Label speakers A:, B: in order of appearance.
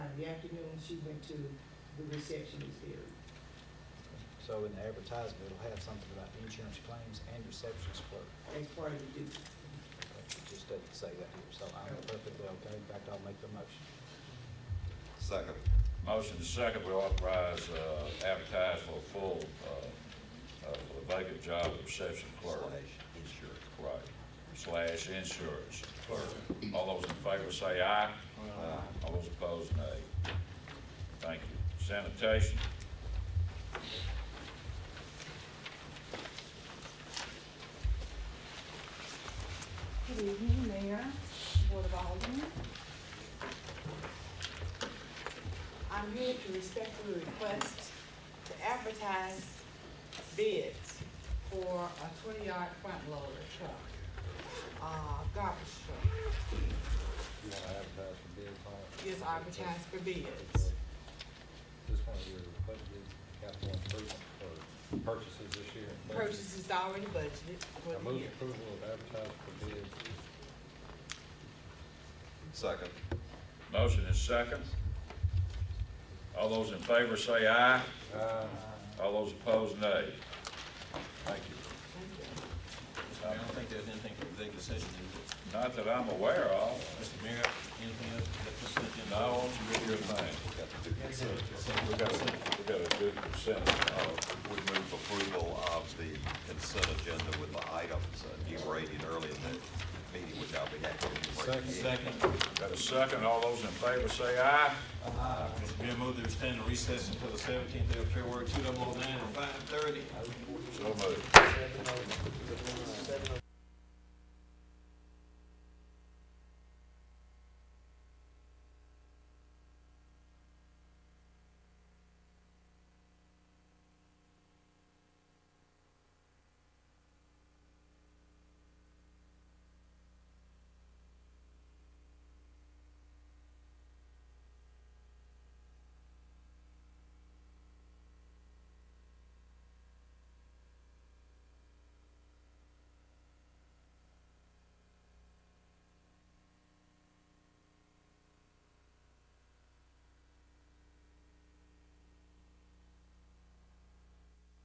A: Uh, the afternoon, she went to the receptionist area.
B: So in the advertisement, it'll have something about insurance claims and receptionist clerk.
A: That's part of the duty.
B: It just doesn't say that here, so I'm perfectly okay. In fact, I'll make the motion.
C: Second.
D: Motion to second, we authorize, uh, advertise for a full, uh, uh, for the vacant job of reception clerk.
C: Slash insurance.
D: Right, slash insurance clerk. All those in favor say aye. Aye. All those opposed, nay. Thank you. Sanitation,
E: Good evening, Mayor, Board of Aldermen.
A: I'm here to respectfully request to advertise bids for a twenty-yard front loader truck, uh, garbage truck.
B: You want to advertise for bids on it?
A: Is advertised for bids.
B: Just one of your budgeted capital improvement for purchases this year.
A: Purchase is already budgeted for
B: I
A: the
B: move
A: year.
B: approval of advertising for bids.
C: Second.
D: motion is second. All those in favor say aye.
B: Uh,
D: All those opposed, nay. Thank you.
F: I don't think there's anything from executive session, is it?
D: Not that I'm aware of.
F: Mr. Mayor, anything else that was sent in?
D: No, you your thing.
C: We got to do consent.
D: We got, we got a good consent.
C: Uh, We move approval of the consent agenda with the items uh, enumerated earlier in the meeting, which I'll be happy to enumerate.
B: Second.
F: Second,
D: Got a second, all those in favor say aye.
F: Mr. Mayor, move that we stand in recess until the seventeenth of
D: oh
F: February, two thousand and nine, at five thirty.
D: So moved.
B: Seven oh, seven oh